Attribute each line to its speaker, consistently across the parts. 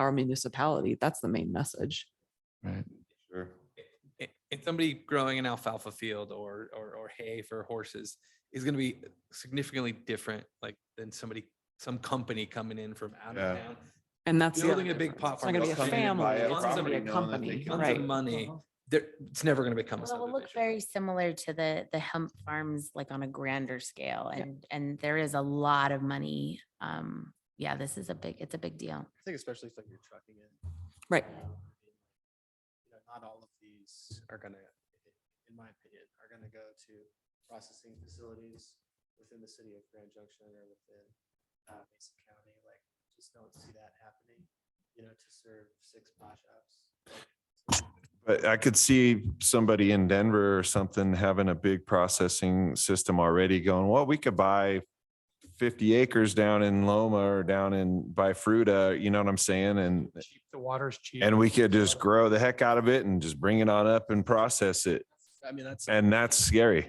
Speaker 1: our municipality. That's the main message.
Speaker 2: Right.
Speaker 3: Sure.
Speaker 4: i- and somebody growing an alfalfa field or, or, or hay for horses is gonna be significantly different, like than somebody, some company coming in from out of
Speaker 3: Yeah.
Speaker 4: town.
Speaker 1: And that's. the other
Speaker 4: Building a big
Speaker 1: difference.
Speaker 4: pot
Speaker 1: It's not gonna be a
Speaker 4: farm, they'll come in and
Speaker 1: family,
Speaker 4: buy a
Speaker 1: it's gonna
Speaker 4: property
Speaker 1: be a
Speaker 4: knowing that
Speaker 1: company, Uh-huh.
Speaker 3: can-
Speaker 4: Tons
Speaker 1: right?
Speaker 4: of money, there, it's never gonna become a
Speaker 5: Well, it will look
Speaker 4: subdivision.
Speaker 5: very similar to the, the hemp farms, like on a grander scale and, and there is a lot of money. Um, yeah, this is a big, it's a big deal.
Speaker 6: I think especially if like you're trucking it. Um,
Speaker 1: Right.
Speaker 6: you know, you know, Not all of these are gonna, in my opinion, are gonna go to processing facilities within the city of Grand Junction or within uh, Mason County, like, just don't see that happening, you know, to serve six pot shops.
Speaker 3: But I could see somebody in Denver or something having a big processing system already going, well, we could buy fifty acres down in Loma or down in by Fruta, you know what I'm saying? And,
Speaker 7: cheap, the water's cheap.
Speaker 3: and we could just grow the heck out of it and just bring it on up and process it.
Speaker 6: I mean, that's.
Speaker 3: And that's scary.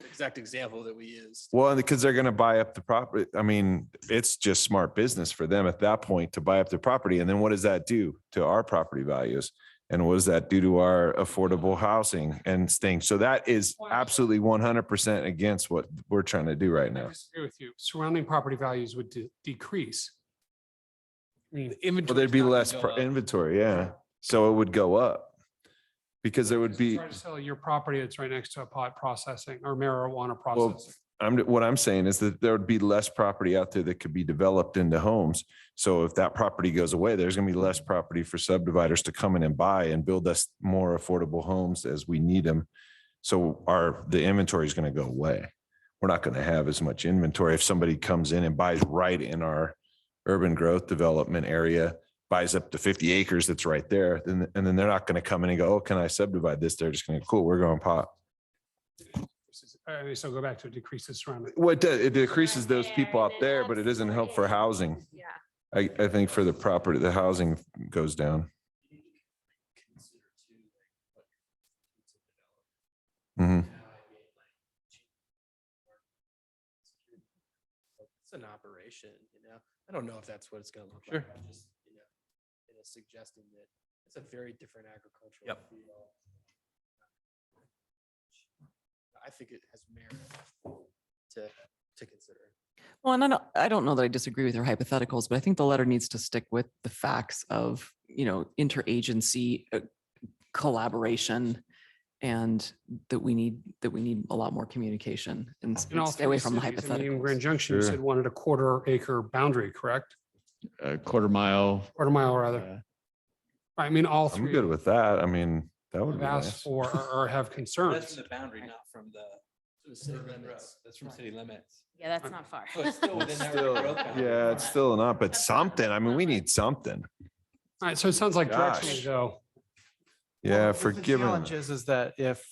Speaker 6: Exact example that we used.
Speaker 3: Well, because they're gonna buy up the property. I mean, it's just smart business for them at that point to buy up the property. And then what does that do to our property values? And what does that do to our affordable housing and things? So that is absolutely one hundred percent against what we're trying to do right
Speaker 7: I
Speaker 3: now.
Speaker 7: disagree with you. Surrounding property values would de- decrease. I mean, the inventory.
Speaker 3: Well, there'd be less pro- inventory, yeah. So it would go up. Because there would be,
Speaker 7: Try to sell your property that's right next to a pot processing or marijuana
Speaker 3: Well,
Speaker 7: processing.
Speaker 3: I'm, what I'm saying is that there would be less property out there that could be developed into homes. So if that property goes away, there's gonna be less property for subdividers to come in and buy and build us more affordable homes as we need them. So our, the inventory is gonna go away. We're not gonna have as much inventory if somebody comes in and buys right in our urban growth development area, buys up to fifty acres that's right there, then, and then they're not gonna come in and go, oh, can I subdivide this? They're just gonna, cool, we're going pot.
Speaker 7: Uh, So go back to decreases surrounding.
Speaker 3: What it decreases those people out there, but it doesn't help for housing.
Speaker 5: Yeah.
Speaker 3: I, I think for the property, the housing goes down.
Speaker 6: You need to, like, Consider too, like, what your needs are developed.
Speaker 3: Mhm.
Speaker 6: It's an operation, you know? I don't know if that's what it's gonna look
Speaker 4: Sure.
Speaker 6: like. I'm just, you know, you know, Suggesting that it's a very different agricultural.
Speaker 4: Yep.
Speaker 6: field. I think it has merit to, to consider.
Speaker 1: Well, and I don't, I don't know that I disagree with your hypotheticals, but I think the letter needs to stick with the facts of, you know, interagency uh, collaboration and that we need, that we need a lot more communication and s-
Speaker 7: In all
Speaker 1: stay away
Speaker 7: three
Speaker 1: from the
Speaker 7: cities, I mean, in Grand
Speaker 1: hypotheticals.
Speaker 7: Junction, you
Speaker 2: Sure.
Speaker 7: said wanted a quarter acre boundary, correct?
Speaker 2: A quarter mile.
Speaker 7: Quarter mile rather.
Speaker 2: uh,
Speaker 7: I mean, all
Speaker 3: I'm
Speaker 7: three.
Speaker 3: good with that. I mean, that would
Speaker 7: have
Speaker 3: be
Speaker 7: asked
Speaker 3: nice.
Speaker 7: for or- or have
Speaker 4: That's
Speaker 7: concerns.
Speaker 4: from the boundary, not from the urban road. That's from city limits.
Speaker 5: Yeah, that's not far.
Speaker 4: So it's still within
Speaker 3: It's
Speaker 4: their
Speaker 3: still-
Speaker 4: growth boundary.
Speaker 3: Yeah, it's still not, but something, I mean, we need something.
Speaker 7: All right, so it sounds like
Speaker 3: Gosh.
Speaker 7: directionally though.
Speaker 3: Yeah,
Speaker 6: Well, the- The
Speaker 3: forgiven.
Speaker 6: challenge is, is that if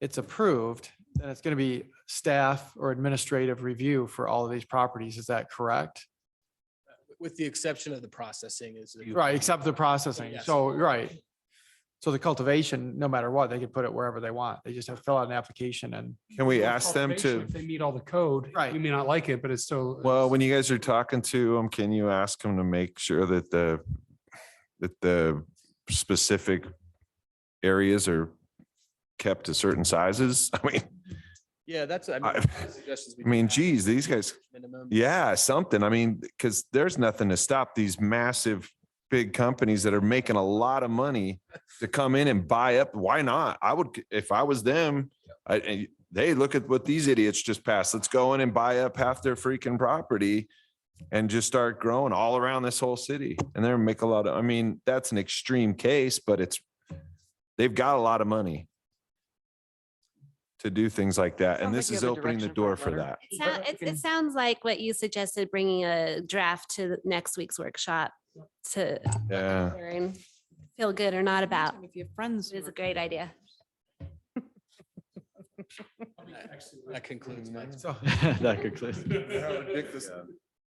Speaker 6: it's approved, then it's going to be staff or administrative review for all of these properties. Is that correct?
Speaker 8: With the exception of the processing is.
Speaker 6: Right, except the processing.
Speaker 8: Yes.
Speaker 6: So, right. So the cultivation, no matter what, they can put it wherever they want. They just have to fill out an application and
Speaker 3: Can we ask them
Speaker 7: Cultivation,
Speaker 3: to,
Speaker 7: If they meet all the code,
Speaker 6: Right.
Speaker 7: you may not like it, but it's still.
Speaker 3: well, when you guys are talking to them, can you ask them to make sure that the, that the specific areas are kept to certain sizes? I mean,
Speaker 8: Yeah, that's, I
Speaker 3: I-
Speaker 8: mean. suggestions we
Speaker 3: I mean,
Speaker 8: can have.
Speaker 3: geez, these guys-
Speaker 8: Minimum.
Speaker 3: Yeah, something. I mean, because there's nothing to stop these massive, big companies that are making a lot of money to come in and buy up. Why not? I would, if I was them, I, I- hey, look at what these idiots just passed. Let's go in and buy up half their freaking property and just start growing all around this whole city. And they're make a lot of, I mean, that's an extreme case, but it's, they've got a lot of money to do things like that.
Speaker 1: Sounds
Speaker 3: And
Speaker 1: like
Speaker 3: this
Speaker 1: you
Speaker 3: is
Speaker 1: have a
Speaker 3: opening the
Speaker 1: direction for a
Speaker 3: door for
Speaker 1: letter.
Speaker 3: that.
Speaker 9: It sou- It, it sounds like what you suggested, bringing a draft to the next week's workshop to
Speaker 3: Yeah.
Speaker 9: hear and feel good or not about.
Speaker 1: If you have friends.
Speaker 9: It is a great idea.
Speaker 8: That concludes my.
Speaker 6: so.
Speaker 2: That concludes.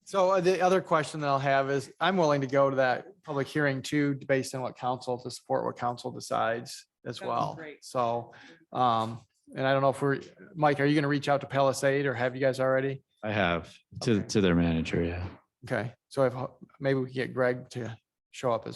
Speaker 6: So uh, the other question that I'll have is, I'm willing to go to that public hearing too, based on what council, to support what council decides as
Speaker 1: That would be
Speaker 6: well.
Speaker 1: great.
Speaker 6: So, um, and I don't know if we're, Mike, are you gonna reach out to Palisade or have you guys already?
Speaker 2: I have to,
Speaker 6: Okay.
Speaker 2: to their manager, yeah.
Speaker 6: Okay, so if, maybe we can get Greg to
Speaker 8: show up as